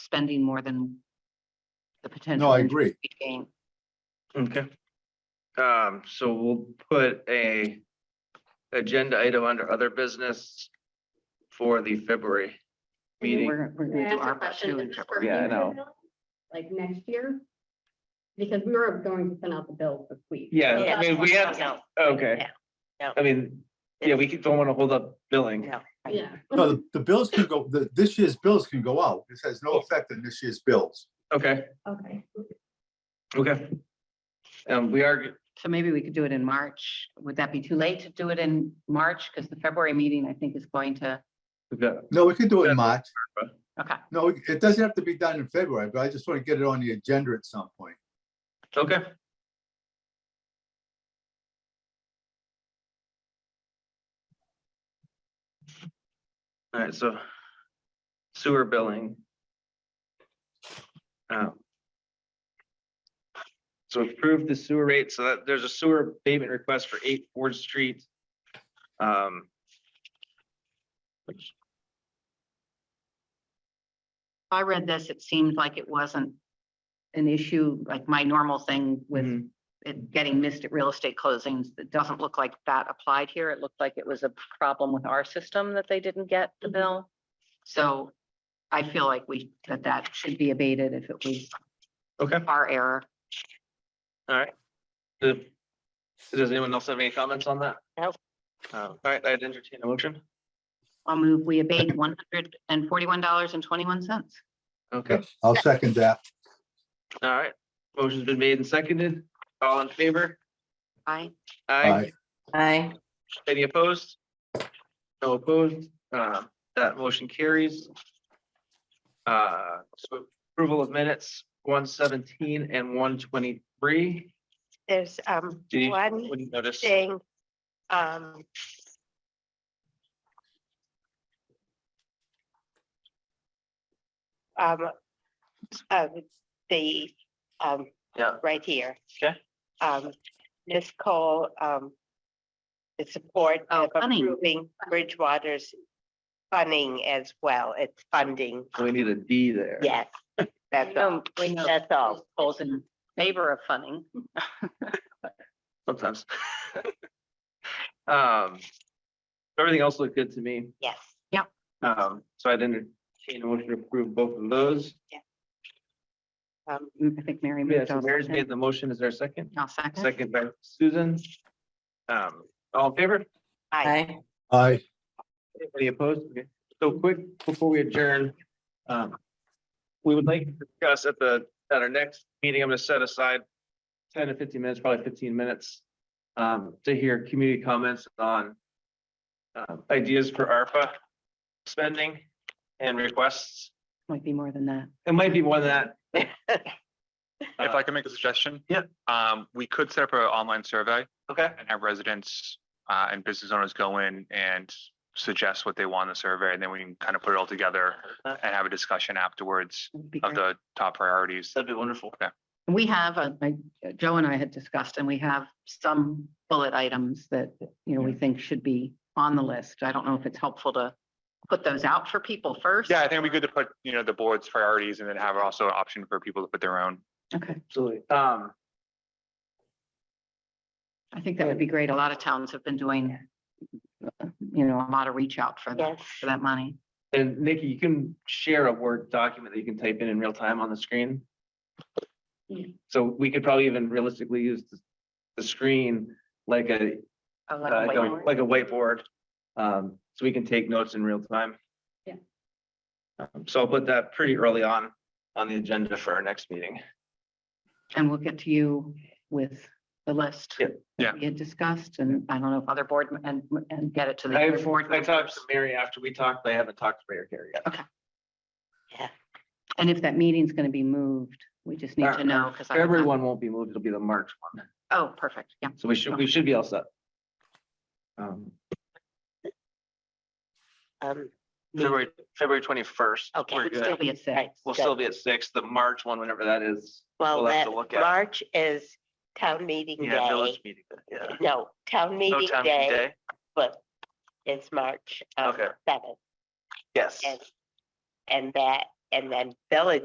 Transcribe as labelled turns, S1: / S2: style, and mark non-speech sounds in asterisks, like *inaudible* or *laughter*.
S1: spending more than the potential.
S2: No, I agree.
S1: we Gain.
S3: Okay. Um, so we'll put a agenda item under other business for the February meeting.
S1: We're, we're
S4: Can I
S1: gonna do
S4: ask a
S1: our best
S4: question?
S1: to
S4: Is this for
S1: interpret.
S5: Yeah, I know.
S4: April, Like next year? Because we were going to send out the bills this week.
S3: Yeah, I mean, we have,
S6: No,
S3: okay.
S6: No.
S3: I mean, yeah, we could- don't want to hold up billing.
S6: no.
S4: Yeah.
S2: No, the- the bills can go, the, this year's bills can go out. This has no effect on this year's bills.
S3: Okay,
S4: *laughs* Okay.
S3: okay. Um, we are,
S1: So maybe we could do it in March. Would that be too late to do it in March? Because the February meeting, I think, is going to,
S3: we've got-
S2: No, we can do it
S3: Yeah.
S2: in March.
S1: okay.
S2: No, it doesn't have to be done in February, but I just want to get it on the agenda at some point.
S3: okay. All right, so sewer billing. Um, So approve the sewer rate, so that there's a sewer payment request for eight Ford Street. Um,
S1: I read this, it seemed like it wasn't an issue, like my normal thing with
S3: mhm.
S2: Mm-hmm.
S1: it getting missed at real estate closings. It doesn't look like that applied here. It looked like it was a problem with our system that they didn't get
S4: Mm-hmm.
S1: the bill. So I feel like we, that that should be abated if it was
S3: okay.
S1: our error.
S3: All right. Does does anyone else have any comments on that?
S6: No.
S3: Uh, All right, I'd entertain a motion.
S1: I'll move, we abate one hundred and forty-one dollars and twenty-one cents.
S3: Okay,
S2: I'll second that.
S3: all right. Motion's been made and seconded. All in favor?
S1: Aye.
S3: Aye.
S2: Aye.
S6: Aye.
S3: Any opposed? No opposed. Uh, That motion carries. Uh, So approval of minutes, one seventeen and one twenty-three.
S6: There's um
S3: Do you,
S6: one
S3: wouldn't notice?
S6: thing. um, um, uh, The, um,
S3: Yeah,
S6: right here.
S3: Okay.
S6: Um, Ms. Cole, um, the support
S1: Oh,
S6: of
S1: funding.
S6: approving Bridgewater's funding as well. It's funding.
S3: so we need a D there.
S6: Yes,
S1: *laughs*
S6: that's all.
S1: We know
S6: That's all.
S1: Paul's in favor of funding.
S3: Sometimes. *laughs* Um, everything else looked good to me.
S6: Yes.
S3: Um, so I'd entertain a motion to approve both of those.
S6: Um,
S1: Mm, I think Mary
S3: Yeah,
S1: moved.
S3: so
S1: I'll
S3: Mary's made
S1: second.
S3: the motion. Is there a second?
S1: I'll second.
S3: Second by Susan. Um, all in favor?
S6: Aye.
S2: Aye.
S3: Any opposed? Okay. So quick, before we adjourn, um, we would like to discuss at the, at our next meeting, I'm gonna set aside ten to fifteen minutes, probably fifteen minutes, um, to hear community comments on um, ideas for ARPA spending and requests.
S1: Might be more than that.
S3: It might be more than that.
S7: If I can make a suggestion?
S3: Yeah.
S7: Um, we could set up an online survey
S3: Okay.
S7: and have residents uh and business owners go in and suggest what they want in the survey, and then we can kind of put it all together and have a discussion afterwards
S1: That'd be
S7: of
S1: great.
S7: the top priorities.
S3: That'd be wonderful.
S1: We have, uh, like, uh, Joe and I had discussed, and we have some bullet items that, you know, we think should be on the list. I don't know if it's helpful to put those out for people first.
S7: Yeah, I think it'd be good to put, you know, the board's priorities and then have also an option for people to put their own.
S1: Okay,
S3: Absolutely. Um,
S1: I think that would be great. A lot of towns have been doing, uh, you know, a lot of reach out for that,
S6: Yes.
S1: for that money.
S3: and Nikki, you can share a Word document that you can type in in real time on the screen.
S1: Yeah.
S3: So we could probably even realistically use the, the screen like a,
S1: Oh, like a
S3: uh, like a
S1: whiteboard.
S3: like a whiteboard. Um, so we can take notes in real time.
S4: Yeah.
S3: Um, So I'll put that pretty early on, on the agenda for our next meeting.
S1: And we'll get to you with the list.
S3: Yeah.
S7: Yeah.
S1: that We had discussed, and I don't know if other board, m- and, and get it to the.
S3: I,
S1: other board
S3: I talked
S1: members.
S3: to Mary after we talked, but I haven't talked to Mayor Carey yet.
S1: And if that meeting's gonna be moved, we just need
S3: Uh,
S1: to know, because.
S3: February one won't be moved, it'll be the March one.
S1: Oh, perfect, yeah.
S3: So we should, we should be all set. Um,
S6: um,
S3: February, February twenty-first.
S6: Okay.
S3: We're
S1: We'd still
S3: good.
S1: be at
S6: right,
S1: six.
S3: We'll still be at six, the March one, whenever that is.
S6: Well,
S3: we'll have
S6: that,
S3: to look at.
S6: March is town meeting
S3: Yeah,
S6: day.
S3: village meeting, yeah.
S6: No, town
S3: No
S6: meeting
S3: town meeting
S6: day, but it's March um,
S3: Okay.
S6: seventh.
S3: Yes.
S6: And, and that, and then village